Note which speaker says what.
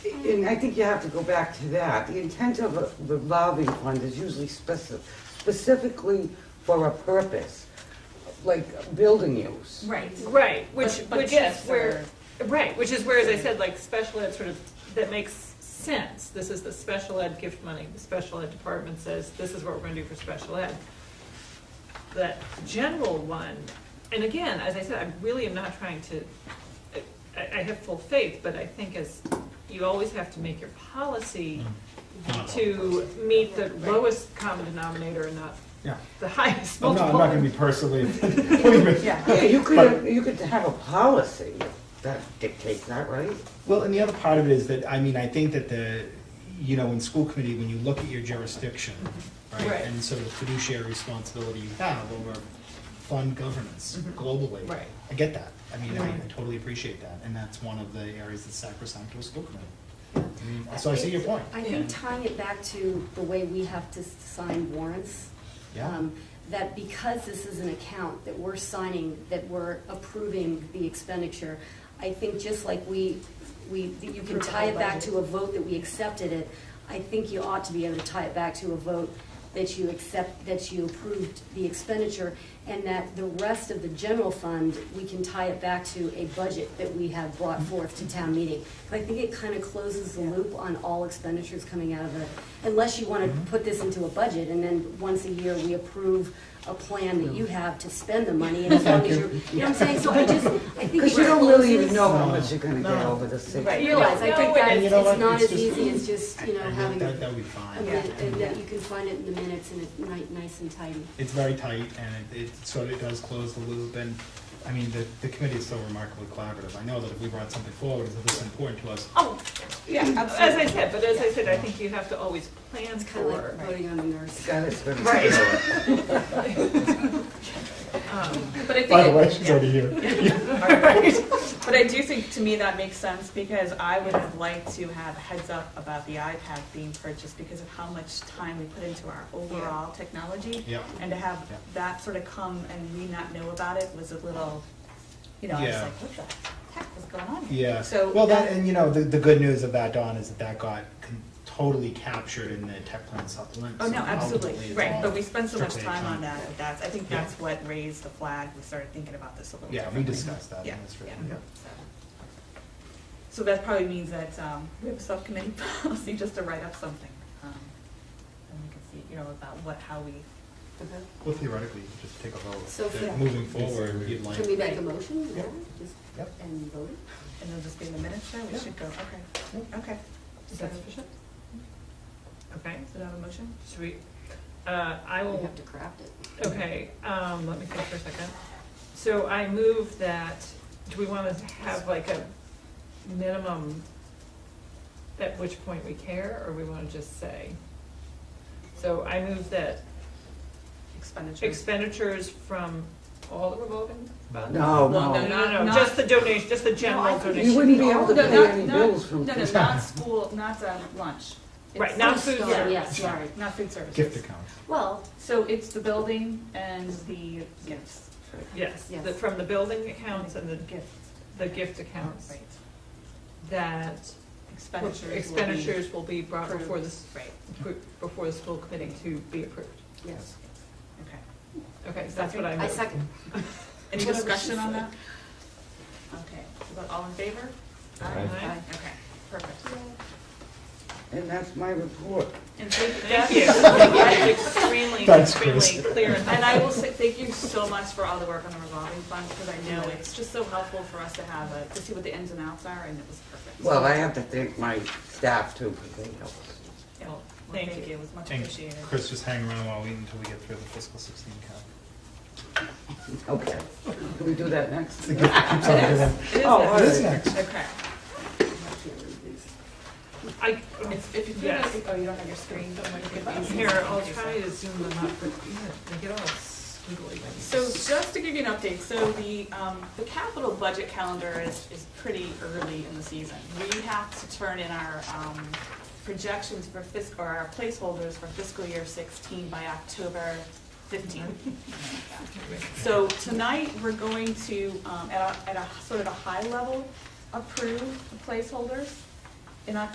Speaker 1: And I think you have to go back to that. The intent of a revolving fund is usually specific, specifically for a purpose, like building use.
Speaker 2: Right.
Speaker 3: Right, which,
Speaker 2: But- but
Speaker 3: which is
Speaker 2: gifts
Speaker 3: where, right, which is where, as I said, like, special ed sort of, that makes sense. This is the special ed gift money, the special ed department says, this is what we're gonna do for special ed. That general one, and again, as I said, I really am not trying to, I, I have full faith, but I think as, you always have to make your policy
Speaker 4: Mm.
Speaker 3: to meet the lowest common denominator and not
Speaker 4: Yeah.
Speaker 3: the highest
Speaker 4: I'm not,
Speaker 3: multiple.
Speaker 4: I'm not gonna be personally, believe me.
Speaker 1: Yeah, you could, you could have a policy that dictates that, right?
Speaker 4: Well, and the other part of it is that, I mean, I think that the, you know, in school committee, when you look at your jurisdiction,
Speaker 3: Right.
Speaker 5: Mm-hmm.
Speaker 4: right? And sort of the fiduciary responsibility you have over fund governance
Speaker 5: Mm-hmm.
Speaker 4: globally.
Speaker 3: Right.
Speaker 4: I get that. I mean, I
Speaker 3: Right.
Speaker 4: I totally appreciate that, and that's one of the areas that's sacrosanct to a school committee. I mean, So I see your point,
Speaker 5: I think tying it back to the way we have to s- sign warrants.
Speaker 4: yeah.
Speaker 5: um, That because this is an account that we're signing, that we're approving the expenditure, I think just like we, we, that you can tie it back to a vote that we accepted it, I think you ought to be able to tie it back to a vote that you accept, that you approved the expenditure, and that the rest of the general fund, we can tie it back to a budget that we have brought forth to town meeting. But I think it kind of closes the loop on all expenditures coming out of the, unless you want
Speaker 4: Mm-hmm.
Speaker 5: to put this into a budget, and then once a year, we approve a plan that you have to spend the money, and as long as you're, you know what I'm saying? So I just, I think it
Speaker 1: Because you don't really even
Speaker 5: closes-
Speaker 1: know how much you're gonna get over the six.
Speaker 5: I
Speaker 3: Right.
Speaker 5: realize, I
Speaker 3: No,
Speaker 5: think
Speaker 3: it
Speaker 5: that
Speaker 3: is.
Speaker 4: You
Speaker 5: it's
Speaker 4: know what?
Speaker 5: not
Speaker 4: It's
Speaker 5: as
Speaker 4: just-
Speaker 5: easy as just, you know,
Speaker 4: I think
Speaker 5: having
Speaker 4: That, that
Speaker 5: a
Speaker 4: would be fine.
Speaker 5: minute, and that you can find it in the minutes and it's ni- nice and tidy.
Speaker 4: It's very tight, and it, it sort of does close the loop, and, I mean, the, the committee is so remarkably collaborative. I know that if we brought something forward, if it's important to us,
Speaker 3: Oh, yeah, as I said, but as I said, I think you have to always plan
Speaker 5: It's kind of like
Speaker 3: for.
Speaker 5: voting on the nurse.
Speaker 1: God, it's gonna.
Speaker 3: Right.
Speaker 6: But
Speaker 3: Um,
Speaker 6: I think,
Speaker 4: by the way,
Speaker 6: it-
Speaker 4: she's already here.
Speaker 6: but I do think, to me, that makes sense, because I would have liked to have a heads up about the iPad being purchased because of how much time we put into our overall technology.
Speaker 4: Yeah.
Speaker 6: And to have
Speaker 4: Yeah.
Speaker 6: that sort of come and we not know about it was a little, you know, I was
Speaker 4: Yeah.
Speaker 6: like, what the heck was going on? here?
Speaker 4: Yeah.
Speaker 6: So
Speaker 4: well, that,
Speaker 6: that-
Speaker 4: and you know the, the good news of that, Don, is that that got con- totally captured in the tech plan supplement.
Speaker 6: Oh,
Speaker 4: so
Speaker 6: no,
Speaker 4: ultimately
Speaker 6: absolutely,
Speaker 4: it's
Speaker 6: right,
Speaker 4: all
Speaker 6: but we spent so much
Speaker 4: strictly
Speaker 6: time on that,
Speaker 4: economic.
Speaker 6: that that's, I think
Speaker 4: Yeah.
Speaker 6: that's what raised the flag, we started thinking about this a little
Speaker 4: Yeah,
Speaker 6: differently.
Speaker 4: we discussed that.
Speaker 6: Yeah,
Speaker 4: that's right.
Speaker 6: yeah.
Speaker 4: yeah.
Speaker 6: So that probably means that um, we have a subcommittee policy just to write up something. um, And we can see, you know, about what, how we,
Speaker 4: Well, theoretically, you could just take a vote.
Speaker 5: So
Speaker 4: that
Speaker 5: for-
Speaker 4: moving forward, you'd like.
Speaker 5: Can we make a motion, is that it? just,
Speaker 4: Yep.
Speaker 5: and vote?
Speaker 6: and it'll just be in the minutes there, we
Speaker 4: Yeah.
Speaker 6: should go, okay, okay.
Speaker 3: Is that sufficient? Okay,
Speaker 6: Is that a motion?
Speaker 3: should we, uh, I
Speaker 5: We
Speaker 3: will,
Speaker 5: have to craft it.
Speaker 3: okay, um, let me think for a second. So I move that, do we want to have like a minimum at which point we care, or we want to just say? So I move that
Speaker 6: Expenditure.
Speaker 3: expenditures from all the revolving funds?
Speaker 1: No,
Speaker 6: No,
Speaker 1: no.
Speaker 3: No, no,
Speaker 6: Uh, Not-
Speaker 3: just the donation, just the
Speaker 6: No,
Speaker 3: general
Speaker 6: I think
Speaker 3: donation.
Speaker 1: You wouldn't be able to
Speaker 6: Oh, No,
Speaker 1: pay
Speaker 6: not-
Speaker 1: any
Speaker 6: not-
Speaker 1: bills from.
Speaker 6: No, no, not school, not uh, lunch.
Speaker 3: Right,
Speaker 6: It's-
Speaker 3: not food
Speaker 5: Oh,
Speaker 3: service.
Speaker 5: yes,
Speaker 6: Sorry,
Speaker 5: sorry.
Speaker 6: not food services.
Speaker 4: Gift account.
Speaker 6: Well, so it's the building and the gifts.
Speaker 3: Yes,
Speaker 5: Yes.
Speaker 3: the- from the building accounts and the,
Speaker 6: Gifts.
Speaker 3: the gift accounts,
Speaker 6: Right.
Speaker 3: That
Speaker 6: Expenditures. will be-
Speaker 3: expenditures will be brought before the, s-
Speaker 6: Right,
Speaker 3: before the school committee to be approved.
Speaker 5: Yes.
Speaker 6: okay.
Speaker 3: Okay, so that's what I
Speaker 5: I
Speaker 3: moved.
Speaker 5: second.
Speaker 6: Any
Speaker 5: Whatever
Speaker 6: discussion
Speaker 5: she
Speaker 6: on
Speaker 5: said.
Speaker 6: that? Okay, but all in favor?
Speaker 3: Aye.
Speaker 6: Okay, perfect.
Speaker 1: And that's my report.
Speaker 6: And thank
Speaker 3: Thank
Speaker 6: that-
Speaker 3: you. That's extremely,
Speaker 4: Thanks, Chris.
Speaker 3: extremely clear. and-
Speaker 6: And I will say, thank you so much for all the work on the revolving fund, because I know it's just so helpful for us to have a, to see what the ins and outs are, and it was perfect.
Speaker 1: Well, I have to thank my staff too, because they helped.
Speaker 6: Yeah, well,
Speaker 3: Thank
Speaker 6: thank
Speaker 3: you.
Speaker 6: you, it was much
Speaker 4: And
Speaker 6: appreciated.
Speaker 4: Chris, just hang around while we until we get through the fiscal sixteen count.
Speaker 1: Okay. Can we do that next?
Speaker 4: The gift keeps on giving.
Speaker 3: It is
Speaker 1: Oh,
Speaker 3: that-
Speaker 1: all
Speaker 4: It is
Speaker 1: right.
Speaker 4: next.
Speaker 6: Okay.
Speaker 3: I,
Speaker 6: If if you could,
Speaker 3: Yes.
Speaker 6: oh, you don't have your screen, don't worry. you can-
Speaker 3: here, I'll try to zoom them up, but yeah, they get all squiggly. when you-
Speaker 6: So just to give you an update, so the, um, the capital budget calendar is, is pretty early in the season. We have to turn in our, um, projections for fiscal, or our placeholders for fiscal year sixteen by October fifteenth. So tonight, we're going to, um, at a, at a sort of a high level, approve the placeholders. In October,